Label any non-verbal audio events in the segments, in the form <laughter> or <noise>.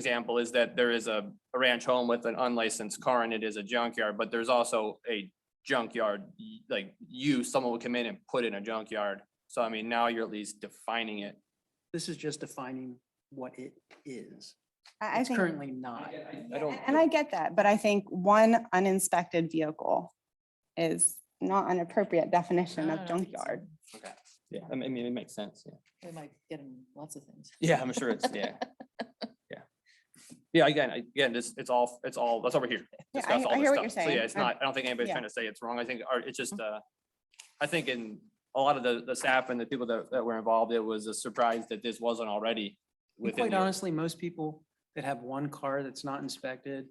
example is that there is a a ranch home with an unlicensed car and it is a junkyard, but there's also a junkyard, y- like you, someone would come in and put in a junkyard. So I mean, now you're at least defining it. This is just defining what it is. I, I It's think. currently not. Yeah, And I get that, but I think one uninspected vehicle is not an appropriate definition No, Ah, of I don't think so. junkyard. Okay. Yeah, I mean, I mean, it makes sense, yeah. We might get him lots of things. Yeah, I'm sure it's, <laughs> yeah. Yeah. Yeah, again, I- again, this, it's all, it's all, that's over here. Yeah, I, discuss all I this hear what stuff. you're So saying. yeah, it's I- not, I don't think anybody's yeah. Mm-hmm. trying to say it's wrong. I think, or it's just, uh, I think in a lot of the, the staff and the people that, that were involved, it was a surprise that this wasn't already And within. Quite the- honestly, most people that have one car that's not inspected,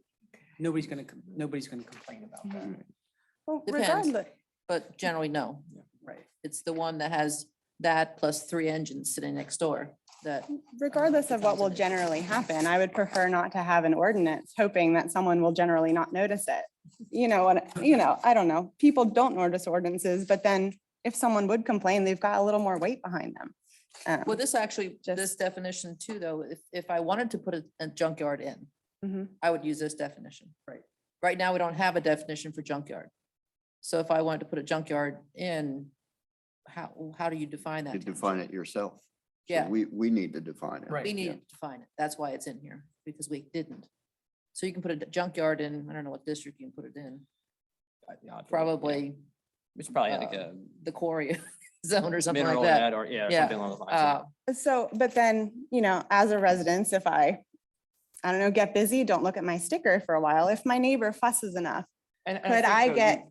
nobody's gonna, com- nobody's gonna complain about Mm-hmm. that. Well, Depends. regardless, But generally, no. Right. It's the one that has that plus three engines sitting next door that, regardless of what will Depends on it. generally happen, I would prefer not to have an ordinance, hoping that someone will generally not notice it. You know, what? you know, I don't know. People don't notice ordinances, but then if someone would complain, they've got a little more weight behind them. Um, well, this actually, Just- this definition too, though, if, if I wanted to put a- a junkyard in, mhm. I would use this definition. Right. Right now, we don't have a definition for junkyard. So if I wanted to put a junkyard in, how, how do you define that? You define it yourself. So Yeah. We, we need to define it. Right. We yeah. need to define it. That's why it's in here, because we didn't. So you can put a junkyard in, I don't know what district you can put it in, Yeah, probably It's probably like a um, the quarry <laughs> zone or something mineral like head that. or, yeah, or Yeah, something along those lines. yeah. Uh, So, but then, you know, as a residence, if I, I don't know, get busy, don't look at my sticker for a while. If my neighbor fusses enough, And- and could think I that we- get,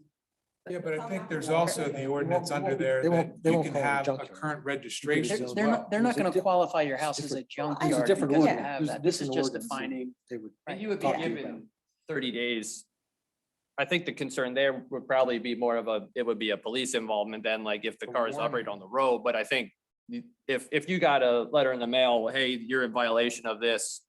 Yeah, but I think there's also in the ordinance under there they that won't- they you won't can call it have a junkyard. current registration They're as they're well. not, they're not There's a gonna diff- qualify your house as a different- junkyard. There's a different because you ordinance. have There's that. This is different just ordinance. defining. they would. And you would be talk to you about given thirty days. I think the concern there would probably be more of a, it would be a police involvement than like if the A car is operated warning. on the road, but I think. you- If, if you got a letter in the mail, hey, you're in violation of this.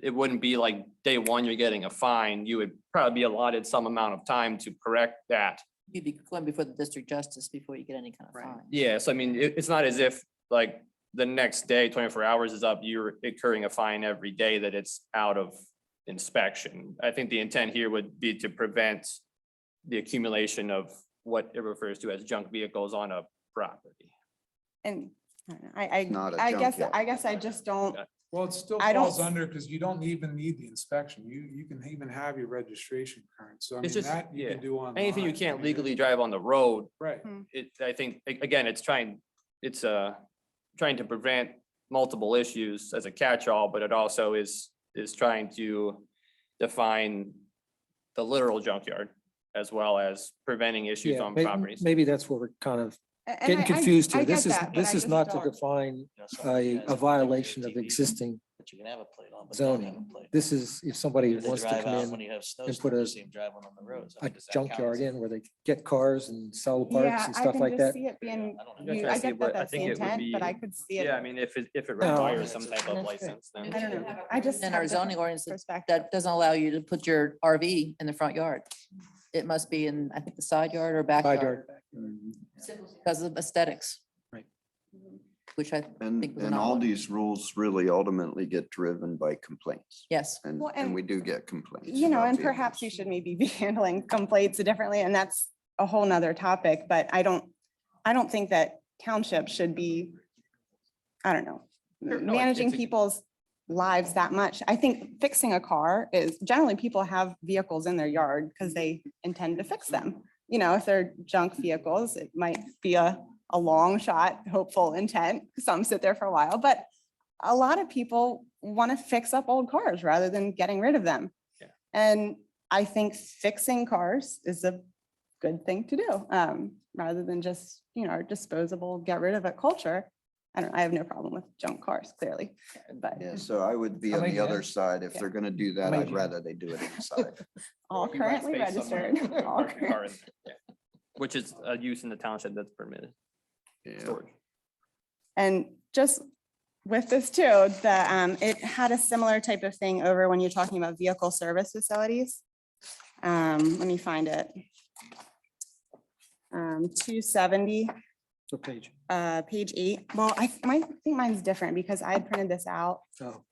It wouldn't be like day one, you're getting a fine. You would probably be allotted some amount of time to correct that. You'd be going before the district justice before you get any kind of Right. fine. Yeah, so I mean, it, it's not as if like the next day, twenty-four hours is up, you're incurring a fine every day that it's out of inspection. I think the intent here would be to prevent the accumulation of what it refers to as junk vehicles on a property. and I, don't know, I, Not a I, I guess, junkyard. I guess I just don't, Well, it still I don't falls s- under, because you don't even need the inspection. You, you can even have your registration current. So I mean, It's just- that you yeah. can do online. Anything you I can't mean, it- legally drive on the road, Right. it, I think, a- again, it's trying, it's, uh, trying to prevent multiple issues as a catch-all, but it also is, is trying to define the literal junkyard as well as preventing issues Yeah, on may- properties. Maybe that's where we're kind of a- and getting I- I- confused I here. This get is, that, but I this is just not to don't. define you know, somebody a, has a a violation of TV, existing. But you can have a plate on. but they don't have zoning. a plate. This is if somebody They wants to drive out come in When you have and snowstorms, put you a- see them driving on the roads. I a mean, does that count junkyard as- in where they get cars and sell parts Yeah, and I stuff can like just that. see it being, I don't know. Yeah, you- trying I to see get what- that I that's the think it would intent, but I be- could see it. Yeah, I mean, if it, if it No. requires some type of That's right. license, I then. don't know. I just. In have our different zoning ordinance, it- perspective. that doesn't allow you to put your RV in the front yard. It must be in, I think, the side yard or backyard. Because of aesthetics. Right. Which I, And, Think we're and not all one. these rules really ultimately get driven by complaints. yes, And, Well, and- and we do get complaints. You know, about and the perhaps abuse. you should maybe <laughs> be handling complaints differently, and that's a whole nother topic, but I don't, I don't think that townships should be, I don't know, Sure, no, I- managing it's a- people's lives that much. I think fixing a car is, generally, people have vehicles in their yard because they intend to fix them. You know, if they're junk vehicles, it might be a, a long shot, hopeful intent. Some sit there for a while, but a lot of people want to fix up old cars rather than getting rid of them. Yeah. And I think fixing cars is a good thing to do, um, rather than just, you know, our disposable, get rid of it culture. I don't, I have no problem with junk cars, clearly, but Yeah, so I would be I on mean, the yeah. other side. If Yeah. they're gonna do that, mean, I'd yeah. rather they do it inside. <laughs> all You rent currently space somewhere, <laughs> registered. you <laughs> park all your current- car in there, yeah. Which is a use in the township that's permitted. Yeah. storage. And just with this too, the, um, it had a similar type of thing over when you're talking about vehicle service facilities. Um, let me find it. Um, two seventy. So page. uh, page eight. Well, I, th- my, I think mine's different because I had printed this out Oh,